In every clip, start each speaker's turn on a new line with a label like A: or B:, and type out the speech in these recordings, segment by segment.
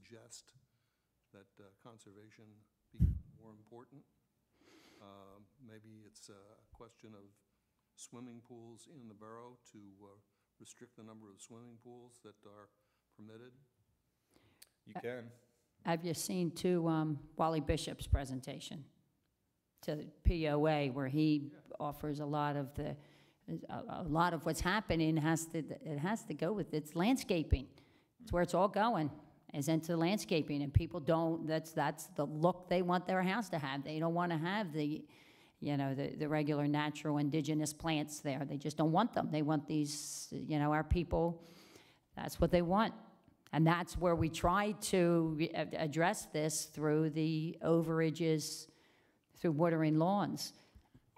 A: suggest that uh, conservation be more important. Um, Maybe it's a question of swimming pools in the borough to uh, restrict the number of swimming pools that are permitted.
B: You can.
C: Have you seen too um, Wally Bishop's presentation to the POA where he offers a lot of the, a, a lot of what's happening has to, it has to go with, it's landscaping. It's where it's all going, is into landscaping and people don't, that's, that's the look they want their house to have. They don't want to have the, you know, the, the regular natural indigenous plants there. They just don't want them. They want these, you know, our people, that's what they want. And that's where we try to re- ad- address this through the overages, through watering lawns.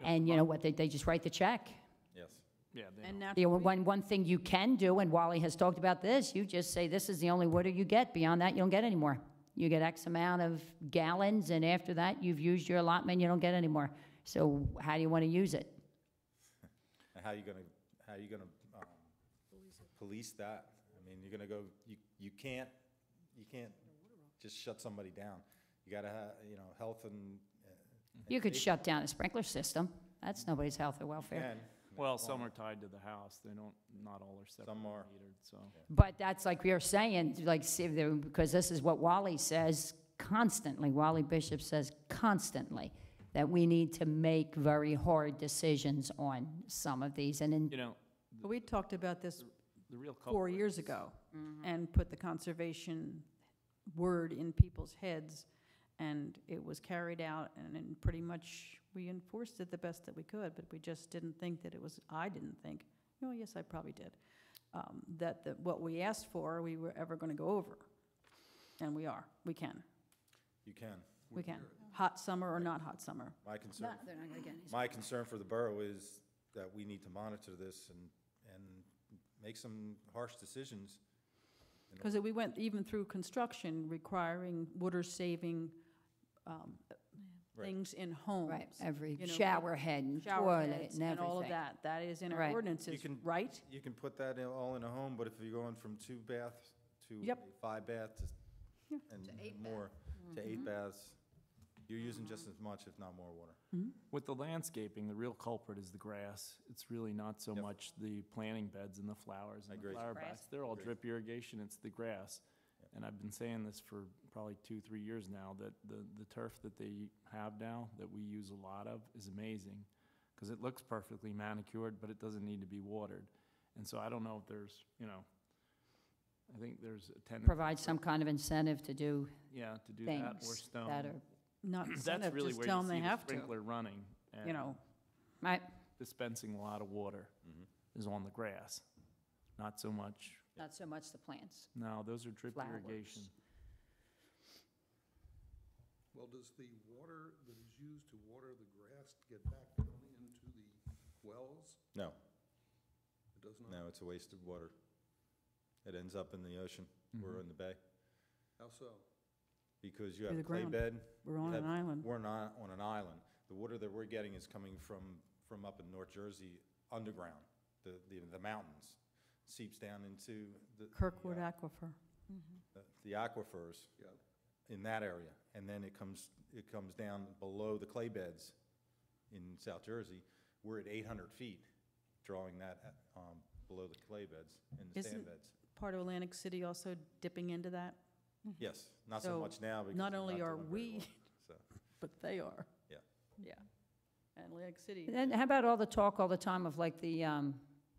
C: And you know what, they, they just write the check.
B: Yes.
D: Yeah, they
E: And
D: don't.
E: now,
C: You know, one, one thing you can do, and Wally has talked about this, you just say, this is the only water you get. Beyond that, you don't get any more. You get X amount of gallons, and after that, you've used your allotment, you don't get any more. So how do you want to use it?
B: And how you gonna, how you gonna, um, police that? I mean, you're gonna go, you, you can't, you can't just shut somebody down. You gotta have, you know, health and. uh,
C: You could
B: safety.
C: shut down a sprinkler system. That's nobody's health or welfare.
B: Can.
D: Well, some are tied to the house. They don't, not all are separate
B: Some are.
D: metered, so.
C: But that's like we are saying, like, see, there- because this is what Wally says constantly, Wally Bishop says constantly, that we need to make very hard decisions on some of these, and in
D: You know,
E: we talked about this
D: the real culprit.
E: four years
D: is-
E: ago
C: Mm-hmm.
E: and put the conservation word in people's heads. And it was carried out and then pretty much we enforced it the best that we could, but we just didn't think that it was, I didn't think, oh, yes, I probably did, um, that, that what we asked for, we were ever going to go over. And we are, we can,
B: You can.
E: we can. Hot summer or not hot summer.
B: My concern, my concern for the borough is that we need to monitor this and, and make some harsh decisions.
E: Because we went even through construction requiring water-saving um,
B: Right.
E: things in homes.
C: Right, every
E: you know,
C: shower head and
E: shower
C: toilet
E: heads
C: and
E: and all of
C: everything.
E: that. That is in our
C: Right.
B: You
E: ordinances,
B: can-
E: right?
B: You can put that in- all in a home, but if you're going from two baths to
E: Yep.
B: a five baths
E: Yeah. Mm-hmm.
B: and more, to eight baths, you're using just as much, if not more water.
D: With the landscaping, the real culprit is the grass. It's really not so
B: Yep.
D: much the planting beds and the flowers
B: I
D: and the
B: agree.
D: flower
C: Grass.
D: beds. They're all
B: Agree.
D: drip irrigation, it's the grass. And I've been saying this for probably two, three years now, that the, the turf that they have now, that we use a lot of, is amazing. Because it looks perfectly manicured, but it doesn't need to be watered. And so I don't know if there's, you know, I think there's a tendency.
C: Provide some kind of incentive to do
D: Yeah, to do that or
C: things
D: stone.
C: that are,
E: Not
D: That's
E: incentive,
D: really
E: just
D: where
E: tell
D: you
E: them
D: see
E: they
D: the
E: have to,
D: sprinkler running
E: you
D: and
E: know.
C: right,
D: dispensing a lot of water is on the grass. Not so much,
C: not so much the plants.
D: no, those are drip
C: Flowers.
D: irrigation.
A: Well, does the water that is used to water the grass get back down into the wells?
B: No,
A: It does not?
B: no, it's a waste of water. It ends up in the ocean or in the bay
A: How so?
B: because you have
E: Through the
B: a clay
E: ground.
B: bed.
E: We're on
B: you
E: an
B: have-
E: island.
B: We're not on an island. The water that we're getting is coming from, from up in North Jersey underground, the, the, the mountains. Seeps down into the. the,
E: Kirkwood
B: uh,
E: Aquifer.
B: the- The aquifers.
A: Yeah,
B: in that area, and then it comes, it comes down below the clay beds in South Jersey. We're at eight hundred feet, drawing that, um, below the clay beds and the
E: Isn't-
B: sand beds.
E: Part of Atlantic City also dipping into that,
B: Yes, not so
E: So
B: much now because.
E: not
B: we're
E: only are
B: doing very
E: we-
B: well, So,
E: but they are.
B: yeah,
E: Yeah. Atlantic City.
C: And how about all the talk all the time of like the, um,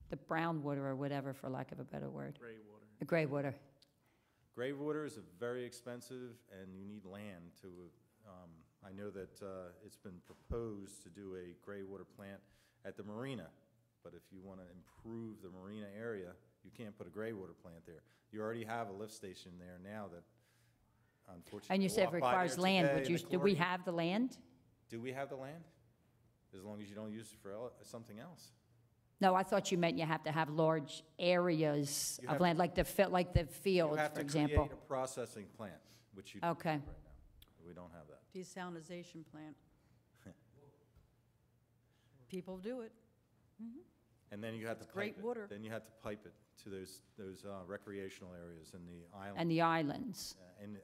C: the brown water or whatever, for lack of a better word?
D: Gray water.
C: The gray water,
B: grave water is very expensive and you need land to, um, I know that, uh, it's been proposed to do a gray water plant at the marina. But if you wanna improve the marina area, you can't put a gray water plant there. You already have a lift station there now that unfortunately.
C: And you
B: I
C: said
B: walked
C: it
B: by
C: requires
B: there
C: land,
B: today
C: would
B: and
C: you,
B: the
C: do we
B: chlorine-
C: have the land?
B: Do we have the land? As long as you don't use it for el- something else.
C: No, I thought you meant you have to have large areas
B: You have
C: of
B: to-
C: land, like the, fi- like the
B: You
C: fields,
B: have
C: for
B: to
C: example. Oh.
B: create a processing plant, which you.
C: Okay.
B: Right now, we don't have that.
E: Desalinization plant. People do it.
B: And then you have to
E: great
B: pipe it.
E: water.
B: Then you have to pipe it to those, those uh, recreational areas in the island.
C: and the islands.
B: Uh, And